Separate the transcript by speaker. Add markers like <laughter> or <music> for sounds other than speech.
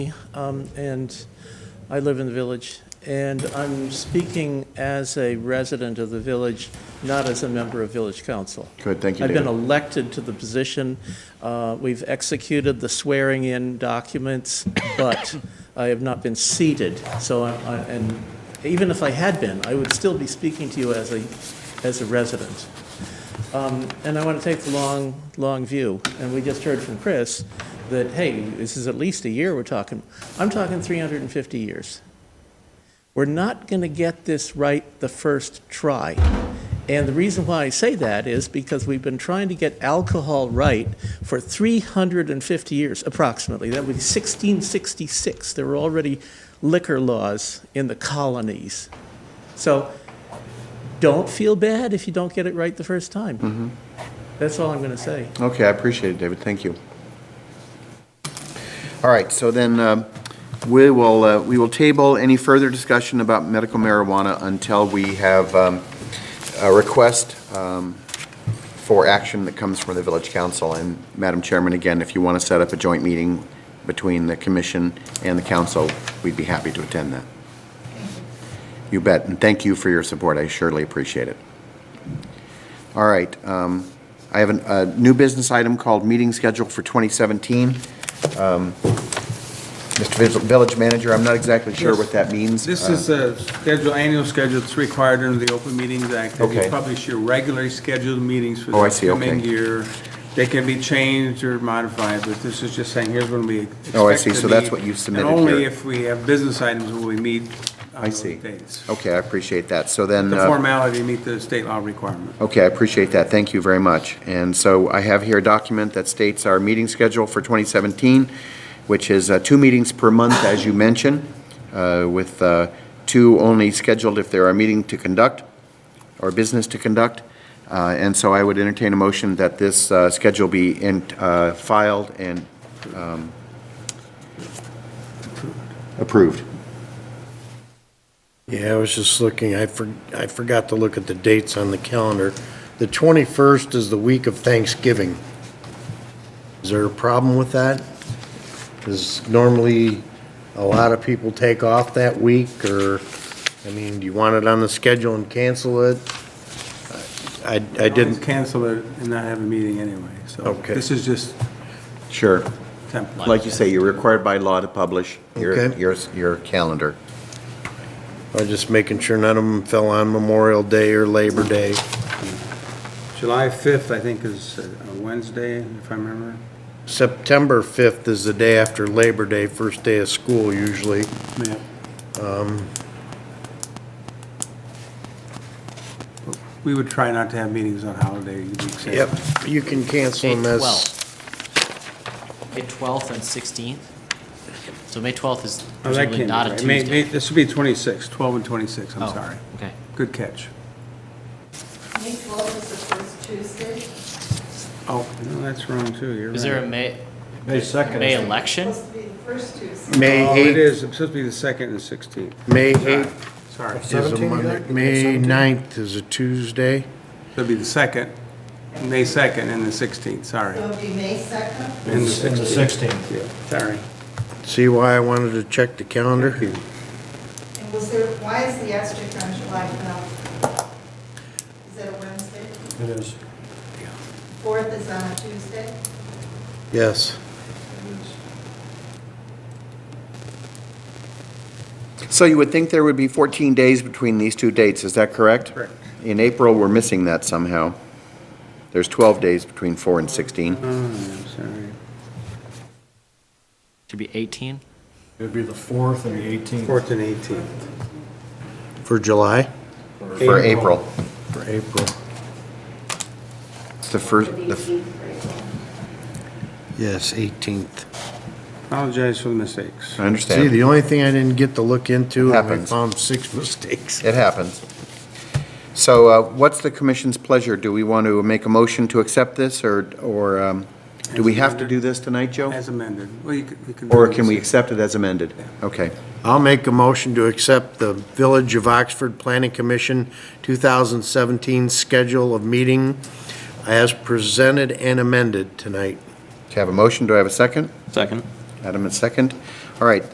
Speaker 1: um, and I live in the village. And I'm speaking as a resident of the village, not as a member of village council.
Speaker 2: Good, thank you,
Speaker 1: I've been
Speaker 2: David.
Speaker 1: elected to the position. Uh, We've executed the swearing-in documents, but I have not been seated. So, I- I- and even if I had been, I would still be speaking to you as a, as a resident. Um, And I want to take the long, long view, and we just heard from Chris that, hey, this is at least a year we're talking. I'm talking 350 years. We're not going to get this right the first try. And the reason why I say that is because we've been trying to get alcohol right for 350 years, approximately. That would be 1666. There were already liquor laws in the colonies. So don't feel bad if you don't get it right the first time. That's all I'm going to say.
Speaker 2: Okay, I appreciate it, David, thank you. All right, so then um, we will, uh, we will table any further discussion about medical marijuana until we have um, a request um, for action that comes from the village council. And Madam Chairman, again, if you want to set up a joint meeting between the commission and the council, we'd be happy to attend that. You bet, and thank you for your support, I surely appreciate it. All right, um, I have an- a new business item called meeting schedule for 2017. Um, Mr. Vis- Village Manager, I'm not exactly sure
Speaker 3: Yes.
Speaker 2: what that means.
Speaker 3: This
Speaker 2: Uh,
Speaker 3: is a schedule, annual schedule that's required under the Open Meetings Act. that
Speaker 2: Okay.
Speaker 3: You publish your regularly scheduled meetings for
Speaker 2: Oh, I
Speaker 3: the
Speaker 2: see, okay.
Speaker 3: coming year. They can be changed or modified, but this is just saying, here's when we expect
Speaker 2: Oh, I see.
Speaker 3: to
Speaker 2: So that's
Speaker 3: meet,
Speaker 2: what you've submitted
Speaker 3: And only
Speaker 2: here.
Speaker 3: if we have business items will we meet on
Speaker 2: I
Speaker 3: those
Speaker 2: see.
Speaker 3: dates.
Speaker 2: Okay, I appreciate that. So then,
Speaker 3: The
Speaker 2: uh,
Speaker 3: formality meet the state law requirement.
Speaker 2: okay, I appreciate that. Thank you very much. And so I have here a document that states our meeting schedule for 2017, which is uh, two meetings per month, as you mentioned, uh, with uh, two only scheduled if there are meeting to conduct. or business to conduct. Uh, And so I would entertain a motion that this uh, schedule be in- uh, filed and um, approved.
Speaker 4: Yeah, I was just looking, I for, I forgot to look at the dates on the calendar. The 21st is the week of Thanksgiving. Is there a problem with that? Because normally, a lot of people take off that week, or, I mean, do you want it on the schedule and cancel it? I, I
Speaker 3: Always
Speaker 4: didn't,
Speaker 3: Cancel it and not have a meeting anyway, so.
Speaker 4: Okay.
Speaker 3: This is just
Speaker 2: Sure.
Speaker 3: template.
Speaker 2: Like you say, you're required by law to publish your,
Speaker 4: Okay.
Speaker 2: your, your calendar.
Speaker 4: I was just making sure none of them fell on Memorial Day or Labor Day.
Speaker 3: July 5th, I think, is uh, a Wednesday, if I remember.
Speaker 4: September 5th is the day after Labor Day, first day of school usually.
Speaker 3: Yeah. We would try not to have meetings on holiday weeks.
Speaker 4: Yep, you can cancel
Speaker 5: May
Speaker 4: them as.
Speaker 5: 12th. May 12th and 16th. So May 12th is
Speaker 3: Oh, that
Speaker 5: presumably
Speaker 3: can't
Speaker 5: not a
Speaker 3: be right. May- may-
Speaker 5: Tuesday.
Speaker 3: This would be 26, 12 and 26, I'm
Speaker 5: Oh,
Speaker 3: sorry.
Speaker 5: Okay.
Speaker 3: Good catch.
Speaker 6: May 12th is the first Tuesday.
Speaker 3: Oh, no, that's wrong too, you're right.
Speaker 5: Is there a May,
Speaker 3: May
Speaker 5: May election?
Speaker 6: It's supposed to be the first Tuesday.
Speaker 4: May
Speaker 3: Oh, it
Speaker 4: 8th,
Speaker 3: is, it's supposed to be the second and 16th.
Speaker 4: May 8th
Speaker 3: Sorry.
Speaker 4: is a Monday. May 9th is a Tuesday.
Speaker 3: It'll be the second, May 2nd and the 16th, sorry.
Speaker 6: So
Speaker 3: And
Speaker 6: it'll be May 2nd.
Speaker 3: the 16th. Yeah, sorry.
Speaker 4: See why I wanted to check the calendar?
Speaker 6: And was there, why is the asterisk on July 12th? Is that a Wednesday?
Speaker 4: It is.
Speaker 6: 4th is on a Tuesday?
Speaker 4: Yes.
Speaker 2: So you would think there would be 14 days between these two dates, is that correct?
Speaker 3: Correct.
Speaker 2: In April, we're missing that somehow. There's 12 days between 4 and 16.
Speaker 3: Oh, I'm sorry.
Speaker 5: Should be 18?
Speaker 7: It'd be the 4th and the 18th.
Speaker 3: 4th and 18th.
Speaker 4: For July?
Speaker 2: For April.
Speaker 4: For April.
Speaker 2: It's the first, the-
Speaker 4: Yes, 18th.
Speaker 3: Apologize for the mistakes.
Speaker 2: I understand.
Speaker 4: See, the only thing I didn't get to look into, and I
Speaker 2: Happens.
Speaker 4: found six <laughs> mistakes.
Speaker 2: It happens. So uh, what's the commission's pleasure? Do we want to make a motion to accept this, or, or um, do we have to do this tonight, Joe?
Speaker 3: As amended. Well, you could- you could-
Speaker 2: Or can we accept it as amended? Okay.
Speaker 4: I'll make a motion to accept the Village of Oxford Planning Commission 2017 schedule of meeting as presented and amended tonight.
Speaker 2: Okay, I have a motion, do I have a second?
Speaker 3: Second.
Speaker 2: Adam, a second. All right,